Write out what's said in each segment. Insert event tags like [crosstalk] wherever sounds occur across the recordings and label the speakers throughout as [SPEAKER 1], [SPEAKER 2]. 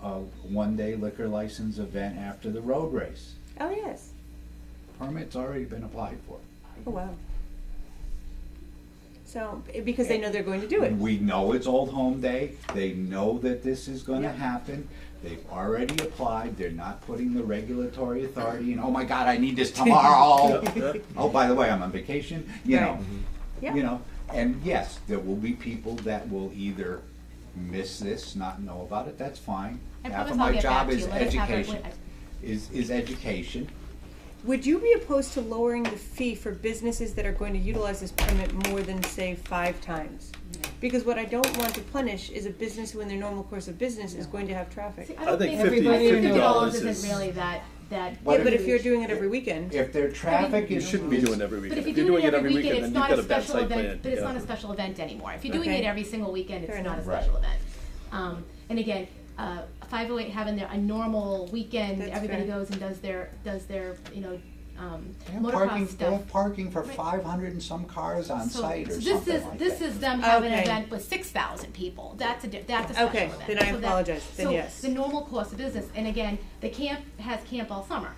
[SPEAKER 1] a one-day liquor license event after the road race.
[SPEAKER 2] Oh, yes.
[SPEAKER 1] Permit's already been applied for.
[SPEAKER 2] Oh, wow. So, eh, because they know they're going to do it.
[SPEAKER 1] We know it's Old Home Day, they know that this is gonna
[SPEAKER 2] Yeah.
[SPEAKER 1] happen, they've already applied, they're not putting the regulatory authority in, oh my god, I need this
[SPEAKER 3] [laughs]
[SPEAKER 1] tomorrow. Oh, by the way, I'm on vacation, you know,
[SPEAKER 2] Yeah.
[SPEAKER 1] you know, and yes, there will be people that will either miss this, not know about it, that's fine.
[SPEAKER 3] I
[SPEAKER 1] Half of
[SPEAKER 3] promise I'll
[SPEAKER 1] my
[SPEAKER 3] get
[SPEAKER 1] job
[SPEAKER 3] back to
[SPEAKER 1] is
[SPEAKER 3] you. Let us have our
[SPEAKER 1] education,
[SPEAKER 3] witness.
[SPEAKER 1] is, is education.
[SPEAKER 2] Would you be opposed to lowering the fee for businesses that are going to utilize this permit more than, say, five times? Because what I don't want to punish is a business who in their normal course of business is going to have traffic.
[SPEAKER 3] See,
[SPEAKER 2] Yeah,
[SPEAKER 3] I don't
[SPEAKER 4] I think
[SPEAKER 3] think
[SPEAKER 4] 50
[SPEAKER 3] everybody,
[SPEAKER 4] $50
[SPEAKER 3] fifty dollars
[SPEAKER 4] is-
[SPEAKER 3] isn't really that, that.
[SPEAKER 1] What
[SPEAKER 2] but if you're
[SPEAKER 3] huge.
[SPEAKER 2] doing it every weekend,
[SPEAKER 1] If their traffic
[SPEAKER 4] You
[SPEAKER 1] is.
[SPEAKER 4] shouldn't be doing it every
[SPEAKER 3] But
[SPEAKER 4] weekend.
[SPEAKER 3] if you're doing it every weekend, it's
[SPEAKER 4] then
[SPEAKER 3] not
[SPEAKER 4] you've
[SPEAKER 3] a
[SPEAKER 4] got a bad
[SPEAKER 3] special
[SPEAKER 4] site
[SPEAKER 3] event,
[SPEAKER 4] plan.
[SPEAKER 3] but it's
[SPEAKER 4] yeah.
[SPEAKER 3] not a special event anymore. If you're doing
[SPEAKER 2] Okay.
[SPEAKER 3] it every single weekend,
[SPEAKER 2] Fair
[SPEAKER 3] it's not a
[SPEAKER 2] enough.
[SPEAKER 1] Right.
[SPEAKER 3] special event. Um, and again, uh, five oh eight having their, a normal weekend,
[SPEAKER 2] That's
[SPEAKER 3] everybody
[SPEAKER 2] fair.
[SPEAKER 3] goes and does their, does their, you know, um,
[SPEAKER 1] They have parking-
[SPEAKER 3] motocross
[SPEAKER 1] They
[SPEAKER 3] stuff.
[SPEAKER 1] have parking for
[SPEAKER 3] Right.
[SPEAKER 1] five hundred and some cars on
[SPEAKER 3] So-
[SPEAKER 1] site
[SPEAKER 3] so
[SPEAKER 1] or
[SPEAKER 3] this
[SPEAKER 1] something
[SPEAKER 3] is,
[SPEAKER 1] like
[SPEAKER 3] this
[SPEAKER 1] that.
[SPEAKER 3] is them having an
[SPEAKER 2] Okay.
[SPEAKER 3] event with six thousand people, that's a, di- that's a special
[SPEAKER 2] Okay,
[SPEAKER 3] event.
[SPEAKER 2] then I
[SPEAKER 3] So that-
[SPEAKER 2] apologize. Then yes.
[SPEAKER 3] So the normal course of business, and again, the camp has camp all summer.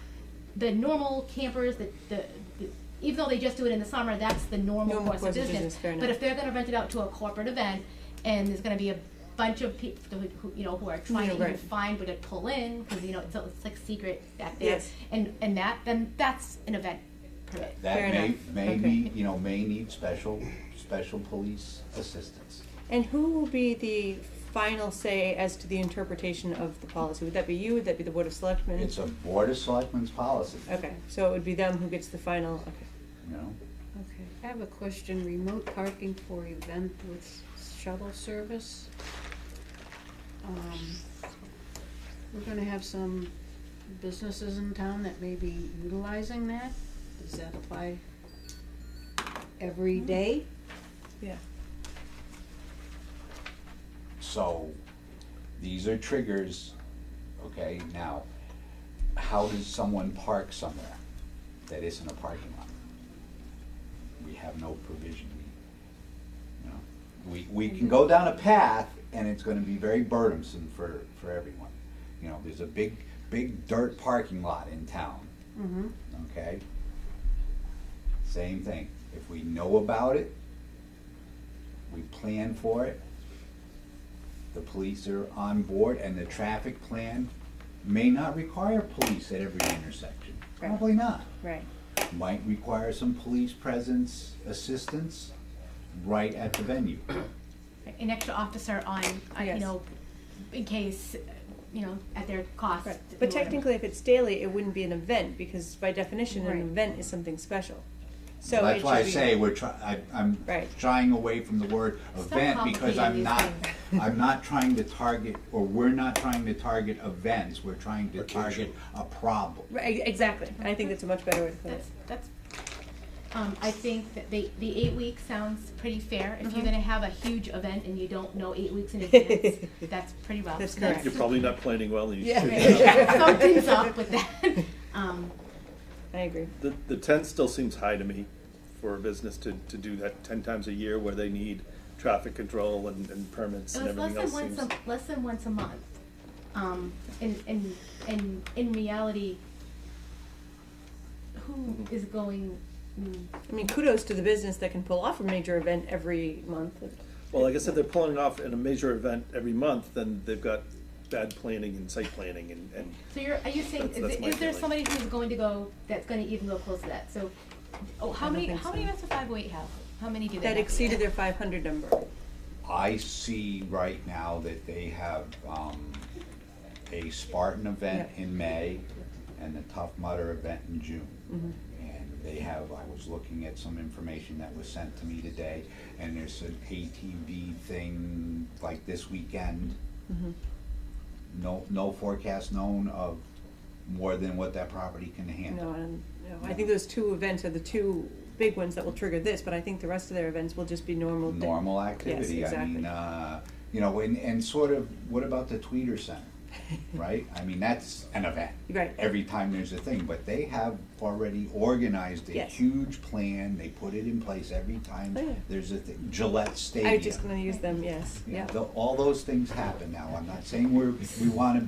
[SPEAKER 3] The normal campers, the, the, the- even though they just do it in the summer, that's the normal course of business.
[SPEAKER 2] fair
[SPEAKER 3] But
[SPEAKER 2] enough.
[SPEAKER 3] if they're gonna rent it out to a corporate event, and there's gonna be a bunch of people who, who, you know, who are trying to
[SPEAKER 2] Yeah, right.
[SPEAKER 3] even find where to pull in, cause you know, it's, it's like secret back there.
[SPEAKER 2] Yes.
[SPEAKER 3] And, and that, then that's an event permit.
[SPEAKER 2] Fair
[SPEAKER 1] That may,
[SPEAKER 2] enough.
[SPEAKER 1] may
[SPEAKER 2] Okay.
[SPEAKER 1] need, you know, may need special, special police assistance.
[SPEAKER 2] and who will be the final say as to the interpretation of the policy? Would that be you? Would that be the Board of Selectmen?
[SPEAKER 1] It's a Board of Selectmen's policy,
[SPEAKER 2] Okay, so it would be them who gets the final, okay,
[SPEAKER 1] you know?
[SPEAKER 2] okay.
[SPEAKER 5] I have a question, remote parking for event with shuttle service. Um, We're gonna have some businesses in town that may be utilizing that, does that apply every day?
[SPEAKER 2] Yeah.
[SPEAKER 1] So, these are triggers, okay, now, how does someone park somewhere that isn't a parking lot? We have no provision, we, you know, we, we can go down a path and it's gonna be very burdensome for, for everyone. You know, there's a big, big dirt parking lot in town,
[SPEAKER 5] Mm-hmm.
[SPEAKER 1] okay? Same thing, if we know about it, we plan for it, the police are on board, and the traffic plan may not require police at every intersection,
[SPEAKER 2] Right.
[SPEAKER 1] probably not.
[SPEAKER 2] Right.
[SPEAKER 1] Might require some police presence, assistance, right at the venue.
[SPEAKER 3] an extra officer on, uh, you
[SPEAKER 2] Yes.
[SPEAKER 3] know, in case, uh, you know, at their cost.
[SPEAKER 2] Right,
[SPEAKER 3] you
[SPEAKER 2] but
[SPEAKER 3] know, whatever.
[SPEAKER 2] technically, if it's daily, it wouldn't be an event, because by definition, an
[SPEAKER 5] Right.
[SPEAKER 2] event is something special. So it
[SPEAKER 1] That's why I
[SPEAKER 2] should be-
[SPEAKER 1] say we're try, I, I'm
[SPEAKER 2] Right.
[SPEAKER 1] shying away from the word
[SPEAKER 3] So
[SPEAKER 1] event, because I'm
[SPEAKER 3] complicated,
[SPEAKER 1] not,
[SPEAKER 3] these
[SPEAKER 1] I'm not trying to target, or we're not trying to target events, we're trying to target
[SPEAKER 4] Occasion.
[SPEAKER 1] a problem.
[SPEAKER 2] Right, e-, exactly, I think that's a much better way to put it.
[SPEAKER 3] That's, that's, um, I think that the, the eight weeks sounds pretty fair.
[SPEAKER 2] Uh-huh.
[SPEAKER 3] If you're gonna have a huge event and you don't know eight weeks
[SPEAKER 2] [laughs]
[SPEAKER 3] in advance, that's pretty rough.
[SPEAKER 2] That's correct.
[SPEAKER 4] You're probably not planning well. and you-
[SPEAKER 3] Something's up with
[SPEAKER 4] [laughs]
[SPEAKER 3] that. Um,
[SPEAKER 2] I agree,
[SPEAKER 4] The, the ten still seems high to me for a business to, to do that ten times a year where they need traffic control and, and permits
[SPEAKER 3] It
[SPEAKER 4] and
[SPEAKER 3] was less
[SPEAKER 4] everything else
[SPEAKER 3] than once
[SPEAKER 4] seems.
[SPEAKER 3] a, less than once a month. Um, and, and, and in reality, who is going, mm,
[SPEAKER 2] I mean, kudos to the business that can pull off a major event every month.
[SPEAKER 4] Well, like I said, they're pulling it off in a major event every month, then they've got bad planning and site planning and, and
[SPEAKER 3] So you're, are you saying,
[SPEAKER 4] That's-
[SPEAKER 3] is,
[SPEAKER 4] that's my
[SPEAKER 3] is there
[SPEAKER 4] feeling.
[SPEAKER 3] somebody who's going to go, that's gonna even go close to that, so, oh, how
[SPEAKER 2] don't
[SPEAKER 3] many,
[SPEAKER 2] think
[SPEAKER 3] how
[SPEAKER 2] so.
[SPEAKER 3] many events does five oh eight have? How many do they have?
[SPEAKER 2] That exceeded their five hundred number,
[SPEAKER 1] I see right now that they have, um, a Spartan event
[SPEAKER 2] Yeah.
[SPEAKER 1] in May and the Tough Mudder event in June. And they have, I was looking at some information that was sent to me today, and there's an ATV thing like this weekend. No, no forecast known of more than what that property can
[SPEAKER 2] no,
[SPEAKER 1] handle.
[SPEAKER 2] and, no, I think those two events are the two big ones that will trigger this, but I think the rest of their events will just be normal. day-
[SPEAKER 1] Normal activity, I
[SPEAKER 2] exactly.
[SPEAKER 1] mean, uh, you know, and, and sort of, what about the Tweeter
[SPEAKER 2] [laughs]
[SPEAKER 1] Center? Right, I mean, that's an event.
[SPEAKER 2] Right.
[SPEAKER 1] Every time there's a thing, but they have already organized a
[SPEAKER 2] Yes.
[SPEAKER 1] huge plan, they put it in place every time
[SPEAKER 2] Oh, yeah.
[SPEAKER 1] there's a thing, Gillette
[SPEAKER 2] I was just
[SPEAKER 1] Stadium.
[SPEAKER 2] gonna use them, yes,
[SPEAKER 1] You know,
[SPEAKER 2] yeah.
[SPEAKER 1] tho- All those things happen now, I'm not saying we're, we wanna